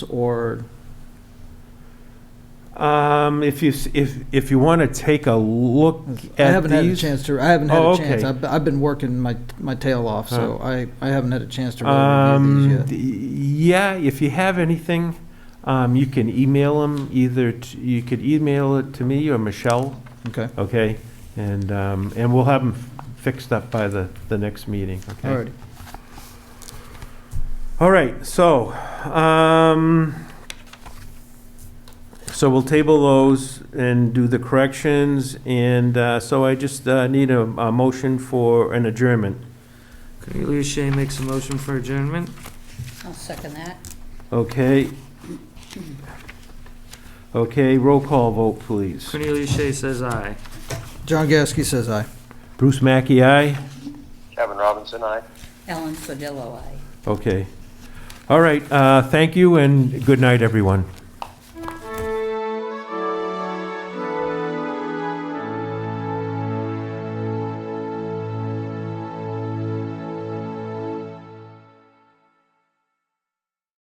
or, Um, if you, s- if, if you want to take a look at these. I haven't had a chance to, I haven't had Oh, a okay. chance. I've, I've been working my, my tail off, so I, I haven't had a chance to really review Um, these yet. d- yeah, if you have anything, um, you can email them either, t- you could email it to me or Michelle, Okay, okay? And, um, and we'll have them fixed up by the, the next meeting, okay? all right. All right, so, um, so we'll table those and do the corrections, and, uh, so I just, uh, need a, a motion for an adjournment. Cornelius Shea makes a motion for adjournment. I'll second that. Okay. Okay, roll call vote, please. Cornelius Shea says aye. John Gasky says aye. Bruce Mackey, aye? Kevin Robinson, aye. Ellen Sodillo, aye. Okay. All right, uh, thank you, and good night, everyone.